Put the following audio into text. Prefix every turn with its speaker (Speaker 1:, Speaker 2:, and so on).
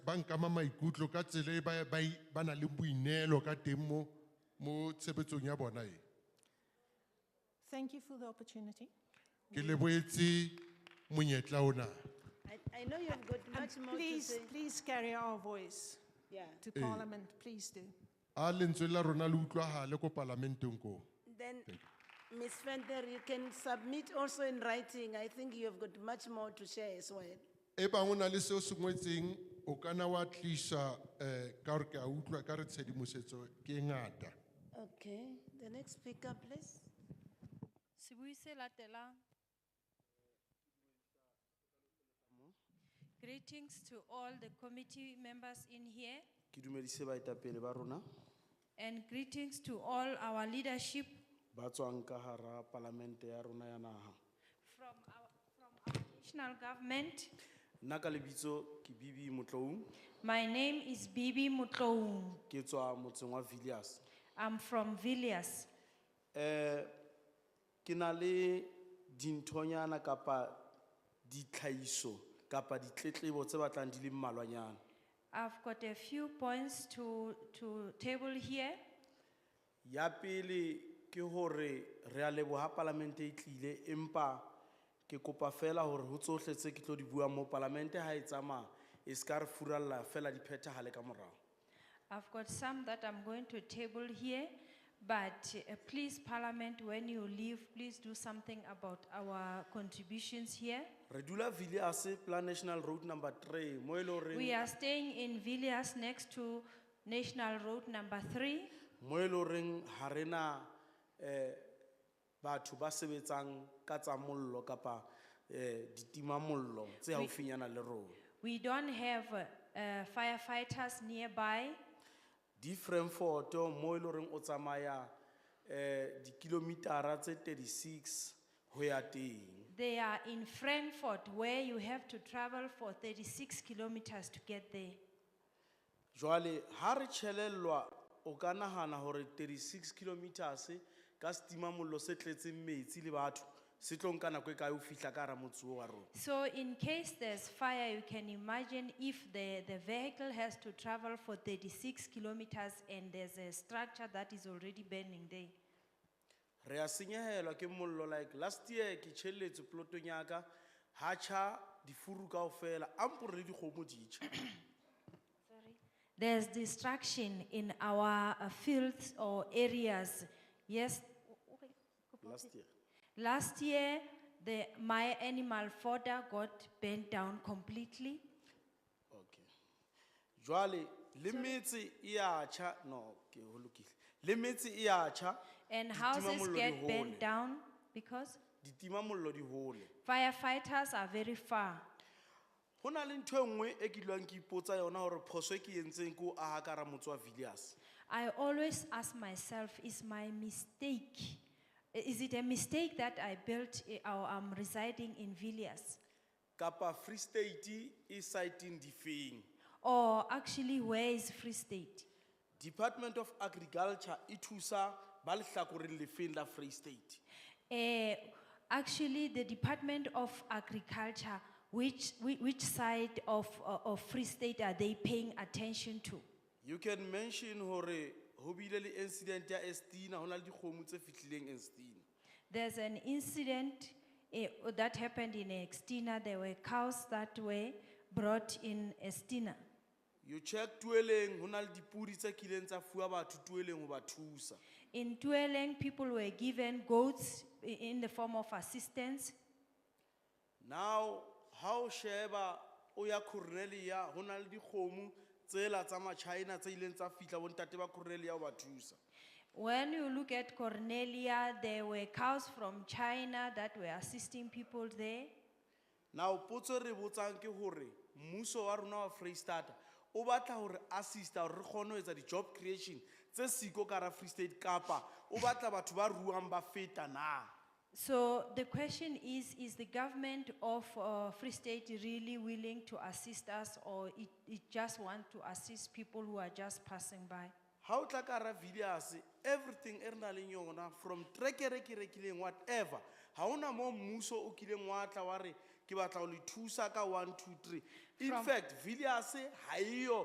Speaker 1: ba nkama maikutlo ka tsela e ba- ba i- ba nang le boineelo ka teng mo mo tshebetsong ya bona e
Speaker 2: Thank you for the opportunity.
Speaker 1: ke leboetse monyetla ona
Speaker 3: I, I know you've got
Speaker 2: And
Speaker 3: much more to
Speaker 2: please,
Speaker 3: say.
Speaker 2: please carry our voice
Speaker 3: Yeah.
Speaker 2: to Parliament, please do.
Speaker 1: a lentswe la rona le utlwagale ko palamenteng koo
Speaker 3: Then, Ms. Fender, you can submit also in writing. I think you have got much more to share as well.
Speaker 1: e bangwe na le seo se ngwetseng o kana wa tlisa um ka gore ke a utlwa ka re tshedimosetso ke e ngata
Speaker 3: Okay, the next speaker, please.
Speaker 4: Sebui se latelang. Greetings to all the committee members in here
Speaker 5: ke dumedise baetapele ba rona
Speaker 4: and greetings to all our leadership
Speaker 5: ba tswang ka hara palamente ya rona ya naha
Speaker 4: from our, from our national government.
Speaker 5: nna ka lebitso ke bibi motloung
Speaker 4: My name is Bibi Mutloum.
Speaker 5: ke tswa motseng wa villiers
Speaker 4: I'm from Villiers.
Speaker 5: um ke na le dinthonyana kapa ditlhahiso kapa ditletlebo tse batlang di le mmalwanyana
Speaker 4: I've got a few points to, to table here.
Speaker 5: ya pele ke hore re a leboha palamente e tlile empa ke kopa fela hore ho tsohle tse ke tlo di buang mo palamente ha e tsamaya e se ka re furalla fela di phethahale ka morao
Speaker 4: I've got some that I'm going to table here, but uh, please, Parliament, when you leave, please do something about our contributions here.
Speaker 5: re dula villiers plan national road number three mo e le
Speaker 4: We
Speaker 5: horeng
Speaker 4: are staying in Villiers next to National Road number three.
Speaker 5: mo e le horeng ha re na um batho ba sebetsang ka tsa mollo kapa um ditimamollo tse haufinyana le rona
Speaker 4: We don't have uh, uh, firefighters nearby.
Speaker 5: di Frankfurto mo e le horeng o tsamaya um dikilomitara tse 36 ho ya teng
Speaker 4: They are in Frankfurt, where you have to travel for 36 kilometers to get there.
Speaker 5: jwale ha re tjhelellwa o ka nahana hore 36 kilometers ka setimamollo se tletseng metsi le batho se tlo nka nako e kae ho fihla ka hara motse oo wa rona
Speaker 4: So in case there's fire, you can imagine if the, the vehicle has to travel for 36 kilometers and there's a structure that is already burning there.
Speaker 5: re a senyehelwa ke mollo like last year ke tjhelletse polotong ya ka ha tjha difuru kaofela a mpore le dikgomo di tjha
Speaker 4: There's destruction in our uh, fields or areas. Yes,
Speaker 5: last year
Speaker 4: last year, the, my animal fodder got burnt down completely.
Speaker 5: okay jwale le metse e a tjha no ke ho lokile le metse e a tjha
Speaker 4: And
Speaker 5: Ditima
Speaker 4: houses
Speaker 5: mollo di
Speaker 4: get
Speaker 5: hole.
Speaker 4: burnt down because
Speaker 5: ditimamollo di hole
Speaker 4: firefighters are very far.
Speaker 5: ho na le ntho e nngwe e ke dulwang ke ipotsa yona hore phoso e ke entseng ke o aha ka hara motse wa villiers
Speaker 4: I always ask myself, is my mistake, is it a mistake that I built eh, or I'm residing in Villiers?
Speaker 5: kapa free state e siteng difeng
Speaker 4: Or actually, where is Free State?
Speaker 5: department of agriculture e thusa ba lehlakoreng lefeng la free state
Speaker 4: Eh, actually, the Department of Agriculture, which, whi- which side of, uh, of Free State are they paying attention to?
Speaker 5: you can mention hore ho bile le incident ya estina ho na le dikgomo tse fihlileng estina
Speaker 4: There's an incident eh, that happened in Estina. There were cows that were brought in Estina.
Speaker 5: you check tueleng ho na le dipudi tse kileng tsa fuwa batho tueleng ho ba thusa
Speaker 4: In Tueleng, people were given goats i- in the form of assistance.
Speaker 5: now ha o sheba o ya cornelia ho na le dikgomo tsela tsa machina tse ileng tsa fihla bontate ba cornelia ho ba thusa
Speaker 4: When you look at Cornelia, there were cows from China that were assisting people there.
Speaker 5: now potso e re botsang ke hore mmuso wa rona wa freistata o batla hore assista hore re kgone ho etsa di-job creation tse siko ka hara free state kapa o batla batho ba ruang ba feta na
Speaker 4: So the question is is the government of uh, Free State really willing to assist us, or it, it just want to assist people who are just passing by?
Speaker 5: ha o tla ka hara villiers everything e re nang leng yona from trekere ke rekileng whatever ha ona moo mmuso o kileng wa tla wa re ke batla ho le thusa ka one two three in
Speaker 4: From-
Speaker 5: fact villiers ha eyo